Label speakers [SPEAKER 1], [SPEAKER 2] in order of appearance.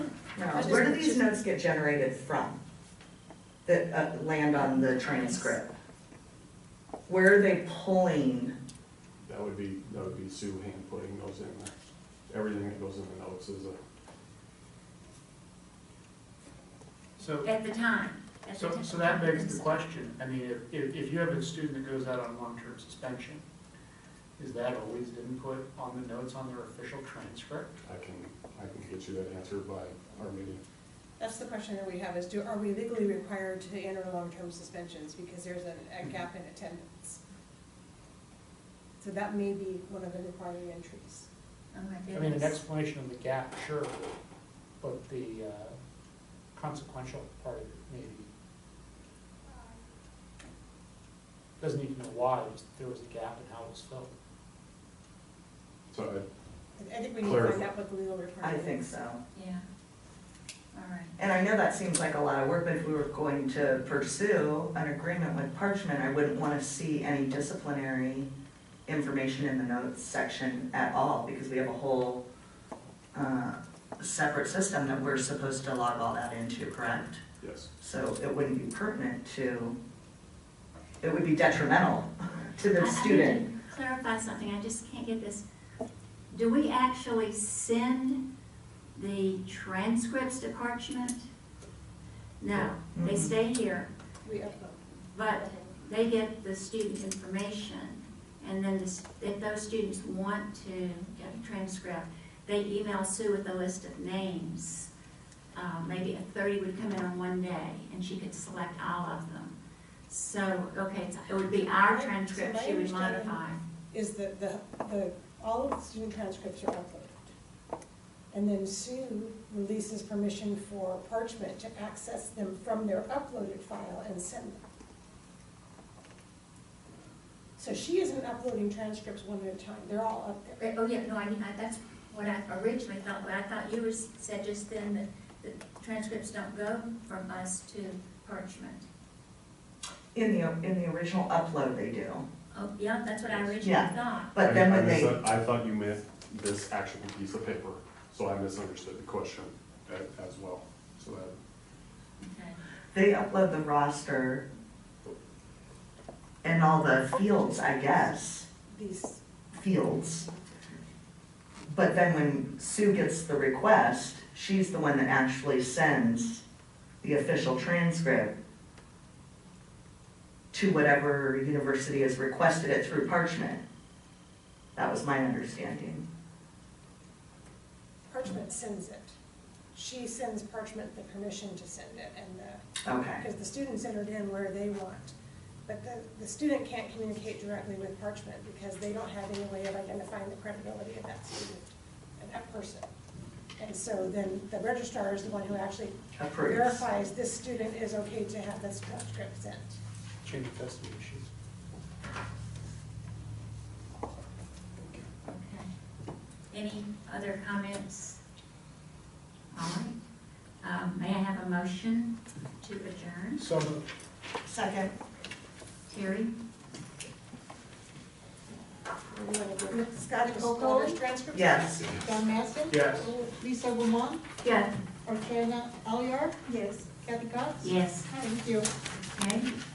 [SPEAKER 1] No,
[SPEAKER 2] I just-
[SPEAKER 1] where do these notes get generated from? That uh, land on the transcript? Where are they pulling?
[SPEAKER 3] That would be, that would be Sue hand putting those in there. Everything that goes in the notes is a,
[SPEAKER 4] So,
[SPEAKER 2] At the time. at the
[SPEAKER 4] so,
[SPEAKER 2] time.
[SPEAKER 4] so that begs the question, I mean, if- if, if you have a student that goes out on long-term suspension, is that always input on the notes on their official transcript?
[SPEAKER 3] I can, I can get you that answer by our meeting.
[SPEAKER 5] That's the question that we have is do, are we legally required to enter long-term suspensions because there's a, a gap in attendance? So that may be one of the requiring entries.
[SPEAKER 2] Oh, my
[SPEAKER 4] I mean, an
[SPEAKER 2] goodness.
[SPEAKER 4] explanation of the gap, sure, but the uh, consequential part of it maybe. Doesn't need to know why there was a gap and how it was filled.
[SPEAKER 3] So I,
[SPEAKER 5] I- I think we need to find
[SPEAKER 3] Clarify.
[SPEAKER 5] out what the legal
[SPEAKER 1] I
[SPEAKER 5] requirement is.
[SPEAKER 1] think so.
[SPEAKER 2] Yeah. All right.
[SPEAKER 1] And I know that seems like a lot of work, but if we were going to pursue an agreement with Parchment, I wouldn't want to see any disciplinary information in the notes section at all, because we have a whole uh, separate system that we're supposed to log all that into, correct?
[SPEAKER 3] yes,
[SPEAKER 1] So it wouldn't be pertinent to, it would be detrimental to
[SPEAKER 2] I- I
[SPEAKER 1] the
[SPEAKER 2] need to
[SPEAKER 1] student.
[SPEAKER 2] Clarify something, I just can't get this. Do we actually send the transcripts to Parchment? No, they
[SPEAKER 4] Mm-hmm.
[SPEAKER 1] Mhm.
[SPEAKER 2] stay here,
[SPEAKER 5] We upload.
[SPEAKER 2] but they get the student information. And then the s- if those students want to get a transcript, they email Sue with a list of names. Uh, Maybe a thirty would come in on one day, and she could select all of them. So, okay, it's- it would be our
[SPEAKER 5] So
[SPEAKER 2] transcript
[SPEAKER 5] my
[SPEAKER 2] she would
[SPEAKER 5] understanding-
[SPEAKER 2] modify.
[SPEAKER 5] Is the, the, the, all of the student transcripts are uploaded. And then Sue releases permission for Parchment to access them from their uploaded file and send them. So she isn't uploading transcripts one at a time, they're all up there.
[SPEAKER 2] Oh, yeah, no, I mean, I, that's what I originally thought, but I thought you were, said just then that the transcripts don't go from us to Parchment.
[SPEAKER 1] In the, in the original upload they do,
[SPEAKER 2] Oh, yeah, that's what I
[SPEAKER 1] Yeah.
[SPEAKER 2] originally thought.
[SPEAKER 1] but then
[SPEAKER 3] I- I
[SPEAKER 1] when they,
[SPEAKER 3] mis- I thought you meant this actual piece of paper, so I misunderstood the question a- as well. So that,
[SPEAKER 2] Okay.
[SPEAKER 1] they upload the roster and all the fields, I guess,
[SPEAKER 5] These,
[SPEAKER 1] fields. But then when Sue gets the request, she's the one that actually sends the official transcript to whatever university has requested it through Parchment. That was my understanding.
[SPEAKER 5] Parchment sends it. She sends Parchment the permission to send it and the,
[SPEAKER 1] Okay,
[SPEAKER 5] because the students entered in where they want. But the, the student can't communicate directly with Parchment because they don't have any way of identifying the credibility of that student and that person. And so then the registrar is the one who actually
[SPEAKER 1] approved.
[SPEAKER 5] verifies this student is okay to have this transcript sent.
[SPEAKER 4] Change of custody issues.
[SPEAKER 2] Okay. Any other comments? All right. Um, may I have a motion to adjourn?
[SPEAKER 4] So moved.
[SPEAKER 1] Second.
[SPEAKER 2] Terry?
[SPEAKER 5] You wanna give Scott just all those transcripts?
[SPEAKER 1] Yes.
[SPEAKER 6] Don Mastin?
[SPEAKER 4] Yes.
[SPEAKER 6] Lisa Roman,
[SPEAKER 2] Yes.
[SPEAKER 6] Archana Alliar? Yes. Kathy Cox?
[SPEAKER 2] Yes,
[SPEAKER 6] Thank you.
[SPEAKER 2] okay.